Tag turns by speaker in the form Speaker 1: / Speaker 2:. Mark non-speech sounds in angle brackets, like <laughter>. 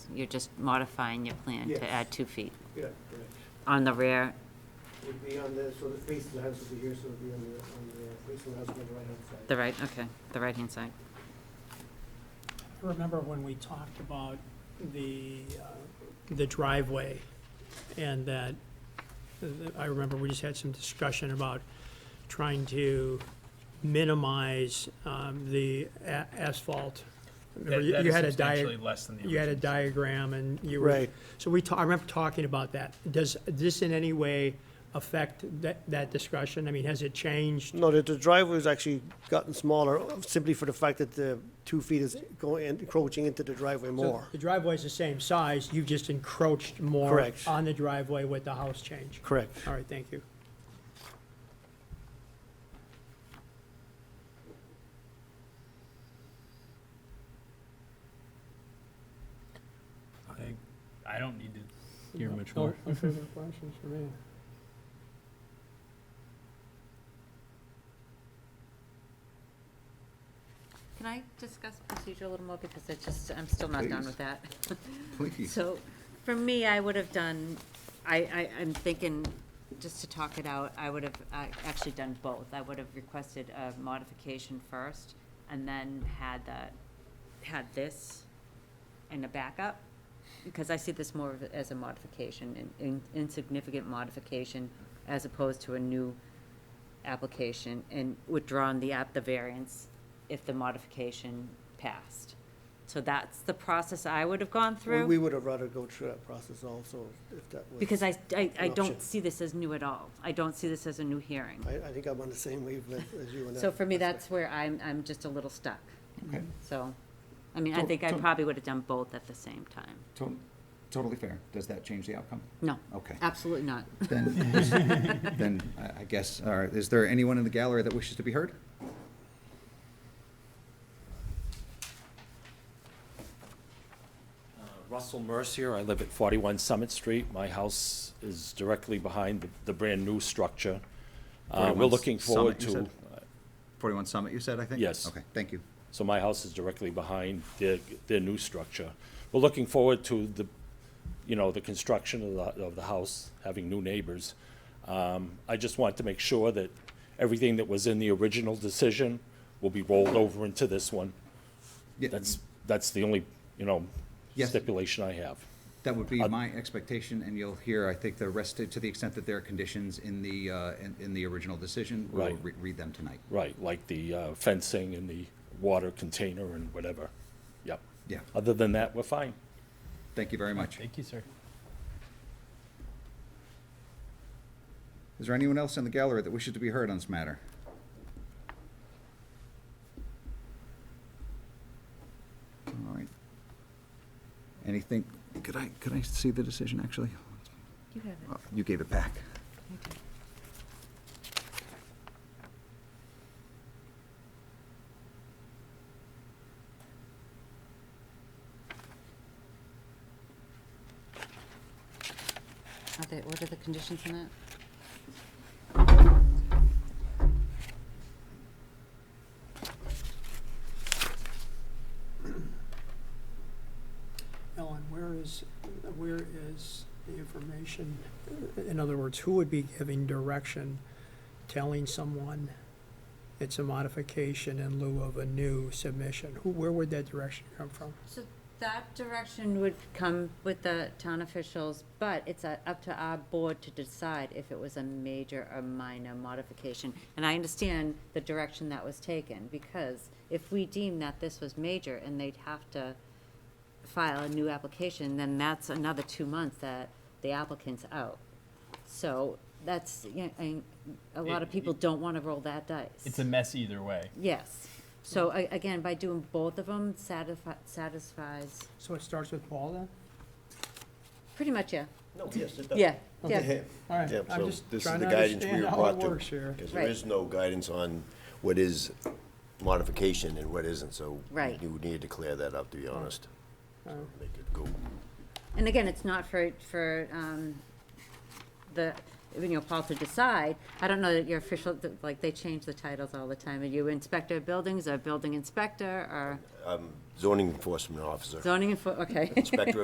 Speaker 1: you're just modifying your plan
Speaker 2: Yes.
Speaker 1: to add two feet
Speaker 2: Yeah, right.
Speaker 1: on the rear.
Speaker 2: Would be on the, so the face of the house would be here, so it would be on the, on the face of the house on the right-hand side.
Speaker 1: The right, okay, the right-hand side.
Speaker 3: I remember when we talked about the, uh, the driveway, and that, I remember we just had some discussion about trying to minimize um, the a- asphalt. Remember,
Speaker 4: That-
Speaker 3: You
Speaker 4: that
Speaker 3: you
Speaker 4: is
Speaker 3: had a
Speaker 4: substantially
Speaker 3: diag,
Speaker 4: less than the
Speaker 3: you had a
Speaker 4: original.
Speaker 3: diagram, and you were.
Speaker 2: Right.
Speaker 3: So we, ta- I remember talking about that. Does this in any way affect that, that discussion? I mean, has it changed?
Speaker 2: No, the, the driveway's actually gotten smaller simply for the fact that the two feet is going, encroaching into the driveway
Speaker 3: So
Speaker 2: more.
Speaker 3: The driveway's the same size, you've just encroached more.
Speaker 2: Correct.
Speaker 3: On the driveway with the house change.
Speaker 2: Correct.
Speaker 3: All right, thank you.
Speaker 4: I- I don't need to hear much
Speaker 3: No-
Speaker 4: more.
Speaker 3: No further questions for me.
Speaker 1: Can I discuss procedure a little more, because I just, I'm still not done
Speaker 5: Please.
Speaker 1: with that. <laughs>
Speaker 5: <laughs> Please.
Speaker 1: So, for me, I would have done, I, I, I'm thinking, just to talk it out, I would have uh, actually done both. I would have requested a modification first, and then had the, had this in a backup, because I see this more of as a modification, an in- insignificant modification, as opposed to a new application, and withdrawn the app, the variance, if the modification passed. So that's the process I would have gone
Speaker 2: We,
Speaker 1: through.
Speaker 2: we would have rather go through that process also, if that was.
Speaker 1: Because I, I, I
Speaker 2: an option.
Speaker 1: don't see this as new at all. I don't see this as a new hearing.
Speaker 2: I, I think I'm on the same wavelength as you and
Speaker 1: So for me, that's where I'm, I'm just a little stuck.
Speaker 5: Okay.
Speaker 1: So, I mean, I
Speaker 5: So-
Speaker 1: think I
Speaker 5: so-
Speaker 1: probably would have done both at the same time.
Speaker 5: To- Totally fair. Does that change the outcome?
Speaker 1: No,
Speaker 5: Okay.
Speaker 1: absolutely not.
Speaker 5: Then, then I- I guess, all right, is there anyone in the gallery that wishes to be heard?
Speaker 6: Uh, Russell Mercier, I live at 41 Summit Street. My house is directly behind the- the brand-new structure. Uh,
Speaker 5: 41
Speaker 6: We're looking forward
Speaker 5: Summit, you
Speaker 6: to,
Speaker 5: Forty-one Summit, you said, I think?
Speaker 6: Yes.
Speaker 5: Okay, thank you.
Speaker 6: so my house is directly behind their, their new structure. We're looking forward to the, you know, the construction of the, of the house, having new neighbors. Um, I just want to make sure that everything that was in the original decision will be rolled over into this one.
Speaker 5: Yeah,
Speaker 6: That's, that's the only, you know,
Speaker 5: Yes.
Speaker 6: stipulation I have.
Speaker 5: That would be my expectation, and you'll hear, I think, the rest, to the extent that there are conditions in the, uh, in, in the original decision. We'll
Speaker 6: Right.
Speaker 5: re- read them tonight.
Speaker 6: Right, like the uh, fencing and the water container and whatever. Yep.
Speaker 5: Yeah,
Speaker 6: Other than that, we're fine.
Speaker 5: thank you very much.
Speaker 4: Thank you, sir.
Speaker 5: Is there anyone else in the gallery that wishes to be heard on this matter? All right. Anything, could I, could I see the decision, actually?
Speaker 1: You have
Speaker 5: Oh, You gave it back.
Speaker 1: it. Are they, what are the conditions in that?
Speaker 3: Ellen, where is, where is the information? In other words, who would be giving direction, telling someone it's a modification in lieu of a new submission? Who, where would that direction come from?
Speaker 1: So that direction would come with the town officials, but it's uh, up to our board to decide if it was a major or minor modification. And I understand the direction that was taken, because if we deem that this was major and they'd have to file a new application, then that's another two months that the applicant's out. So that's, you know, and a lot of
Speaker 4: It-
Speaker 1: people don't want to roll that dice.
Speaker 4: It's a mess either way.
Speaker 1: Yes. So a- again, by doing both of them satisfies,
Speaker 3: So it starts with Paul then?
Speaker 1: pretty much, yeah.
Speaker 7: No, yes, it does.
Speaker 1: Yeah, yeah.
Speaker 3: Okay. All right,
Speaker 7: Yeah,
Speaker 3: I'm
Speaker 7: so
Speaker 3: just
Speaker 7: this is
Speaker 3: trying
Speaker 7: the
Speaker 3: to
Speaker 7: guidance we
Speaker 3: understand
Speaker 7: were
Speaker 3: how it
Speaker 7: brought to.
Speaker 3: works here.
Speaker 7: Because there
Speaker 1: Right.
Speaker 7: is no guidance on what is modification and what isn't, so.
Speaker 1: Right.
Speaker 7: You need to clear that up, to be honest. So Make it go.
Speaker 1: And again, it's not for, for um, the, you know, Paul to decide. I don't know that your official, that, like, they change the titles all the time. Are you inspector of buildings or building inspector or
Speaker 7: Zoning enforcement officer,
Speaker 1: zoning enfor, okay.
Speaker 7: inspector